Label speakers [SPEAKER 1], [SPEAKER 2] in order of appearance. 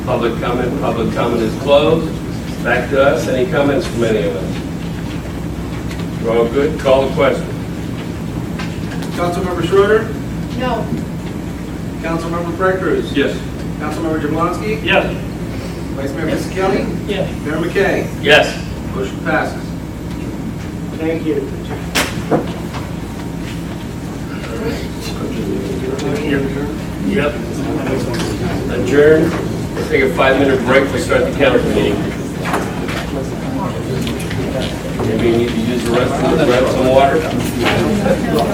[SPEAKER 1] Public comment, public comment is closed. Back to us, any comments from any of us? We're all good, call the question.
[SPEAKER 2] Councilmember Schroeder,
[SPEAKER 3] No.
[SPEAKER 2] Councilmember Frank Cruz,
[SPEAKER 1] Yes.
[SPEAKER 2] Councilmember Jablonski,
[SPEAKER 1] Yes.
[SPEAKER 2] Vice Mayor Fisickelli,
[SPEAKER 3] Yes.
[SPEAKER 2] Mayor McKay.
[SPEAKER 1] Yes.
[SPEAKER 2] Motion passes.
[SPEAKER 3] Thank you.
[SPEAKER 1] Yep. Adjourn, take a five-minute break, we start the council meeting. Maybe you need to use the restroom, grab some water.